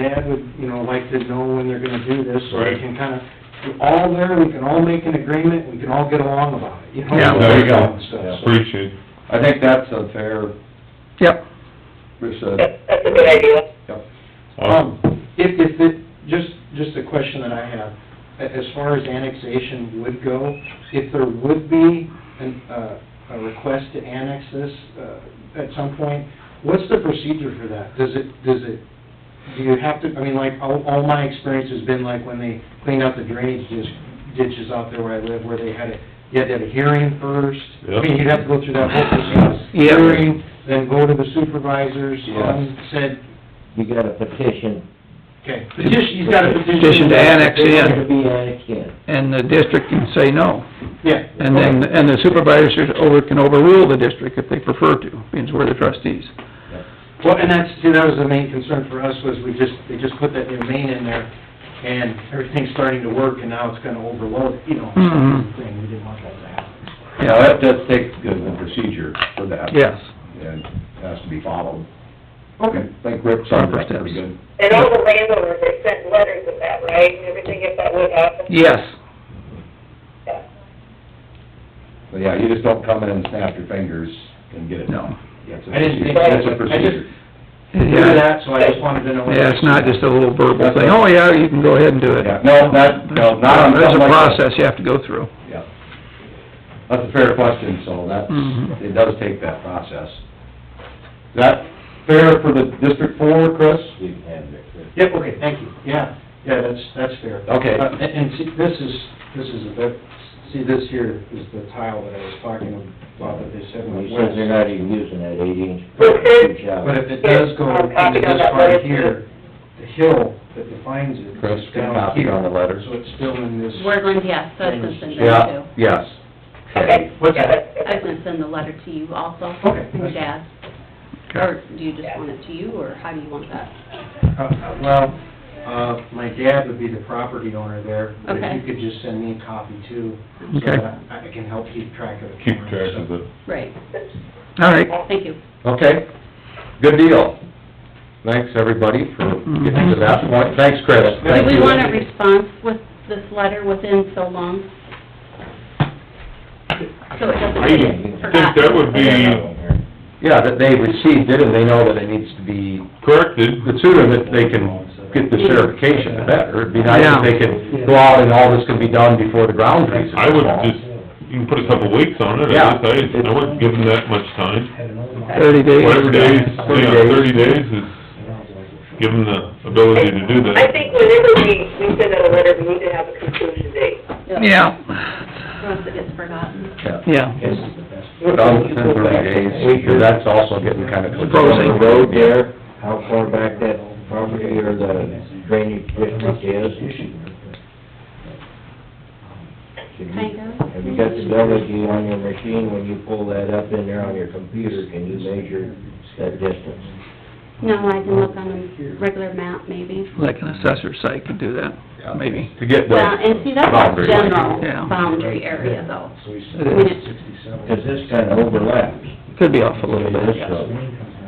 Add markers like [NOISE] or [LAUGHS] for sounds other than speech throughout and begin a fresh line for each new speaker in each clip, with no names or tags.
Dad would, you know, like to know when they're gonna do this, so we
Right.
can kinda, we're all there, we can all make an agreement, we can all get along about it, you know?
Yeah,
there you go.
And stuff, so.
Appreciate,
I think that's a fair,
Yep.
Rich
That's,
said,
that's a good idea.
yep.
awesome,
Um, if, if it, just, just a question that I have, A- as far as annexation would go, if there would be an, uh, a request to annex this, uh, at some point, what's the procedure for that? Does it, does it, do you have to, I mean, like, all, all my experience has been like when they cleaned out the drainage dis- ditches out there where I live, where they had a, you had to have a hearing first. I mean,
Yep.
you'd have to go through that whole process,
Yeah.
hearing, then go to the supervisors
Yeah.
on said
You got a petition,
Okay, petition, he's got a petition.
Petition to annex
to
in,
be annexed in.
and the district can say no.
Yeah.
And then, and the supervisors over, can overrule the district if they prefer to, means we're the trustees.
Well, and that's, see, that was the main concern for us, was we just, they just put that new main in there, and everything's starting to work, and now it's gonna overload, you know,
Mhm.
Mm-hmm.
thing, we didn't want that to happen.
Yeah, that does take a good procedure for that.
Yes.
And has to be followed.
Okay.
I think Rick summed
Proper
it up pretty
steps.
good.
And all the landowners, they sent letters of that, right, and everything if that would happen?
Yes.
Yeah.
But yeah, you just don't come in and snap your fingers and get it done.
No.
That's a
I didn't
procedure.
think
That's a
that, I
procedure.
just, knew
Yeah,
that, so I just wanted to know.
yeah, it's not just a little verbal thing, oh yeah, you can go ahead and do it.
Yeah, no, not, no, not on
There's a
something like that.
process you have to go through.
Yeah. That's a fair question, so that's,
Mhm.
it does take that process. Is that fair for the District Four, Chris?
You can annex it.
Yep, okay, thank you, yeah, yeah, that's, that's fair.
Okay.
Uh, And, and see, this is, this is a bit, see, this here is the tile that I was talking about, that they said
Well,
was
He says they're not even using that eight inch.
[LAUGHS]
Okay.
Good job.
But if it does go
Yes, I'm copying
into
on
this
that
part
letter,
here, the hill that defines it
Chris,
is
good
down
copy
here.
on the letter.
So it's still in this,
We're going to, yes, so I was gonna send that
Yeah,
too.
yes.
Okay.
What's
Yeah,
that?
I was
that's-
gonna send the letter to you also.
Okay.
From your dad. Or do you just want it to you, or how do you want that?
uh, uh, well, uh, my dad would be the property owner there. but
Okay.
If you could just send me a copy too, so
Okay.
that I I can help keep track of it.
keep track of it.
Right,
All right,
thank you.
Okay, good deal. Thanks, everybody, for getting to that point. Thanks, Chris.
Do
Thank
we
you.
want a response with this letter within so long? So it doesn't
I
get
think that
forgotten?
would be
Yeah, that they received it and they know that it needs to be,
corrected,
the sooner that they can get the certification, the better. It'd be nice if they could go out and all this could be done before the ground freezes.
I would just, you can put a couple weeks on it,
Yeah.
I guess, I, I wouldn't give them that much time.
thirty days.
Whatever days,
Thirty
yeah,
days.
thirty days is, give them the ability to do that.
I think whenever we, we send out a letter, we need to have a conclusion date.
Or else it gets forgotten.
Yeah.
Done within thirty days, because that's also getting kind of...
Frozen.
The road there, how far back that property or the drainage district is? Should
Kind
you-
of.
Have you got the ability on your machine, when you pull that up in there on your computer, can you measure that distance?
No, I can look on a regular map, maybe.
Like an assessor site could do that, maybe.
To get the...
Well, and see, that's a
boundary line.
general
Yeah.
boundary area though.
It is.
Cause this kinda overlaps.
Could be off a little bit, yes.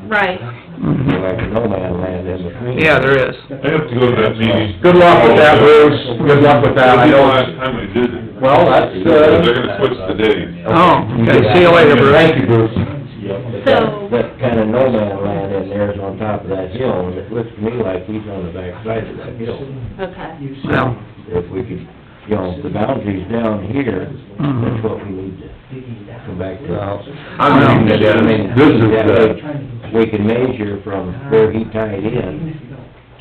Right,
Mhm.
Like no man land in between.
Yeah, there is.
I have to go to that meeting.
Good luck with that, Bruce. Good luck with that.
It'll
I
be the
know
last
it's-
time I did it.
Well, that's,
They're
uh...
gonna switch the days.
Oh, okay, see you later, Bruce.
Thank you, Bruce.
But
So-
that, that kinda no man land in there is on top of that hill, and it looks to me like he's on the back side of that hill.
okay.
Well,
If we could, you know, if the boundary's down here, that's what we need to come back to.
I mean,
I mean,
this is, uh,
We can measure from where he tied in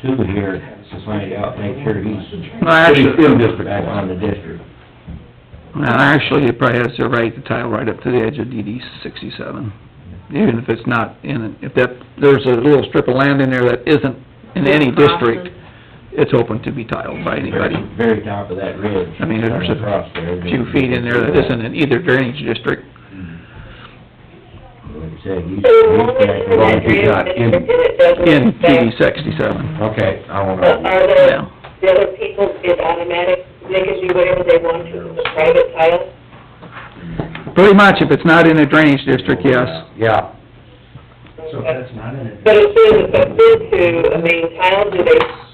to here to find out, make sure he's
no, actually,
back on the district.
no, actually, it probably has to right the tile right up to the edge of DD sixty-seven. Even if it's not in, if that, there's a little strip of land in there that isn't in any district, it's open to be tiled by anybody.
Very top of that ridge.
I mean, there's
Across
a
there.
few feet in there that isn't in either drainage district.
Like I said, he's, he's
So long as
back
it's in
along
that
the
drainage
dock.
district and it doesn't
in DD
affect-
sixty-seven.
Okay, I won't
But
argue.
um, Yeah.
are the, the other people, it's automatic, they can do whatever they want to, with the private tile?
Pretty much, if it's not in a drainage district, yes.
Yeah,
But it says if it's to a main tile, do they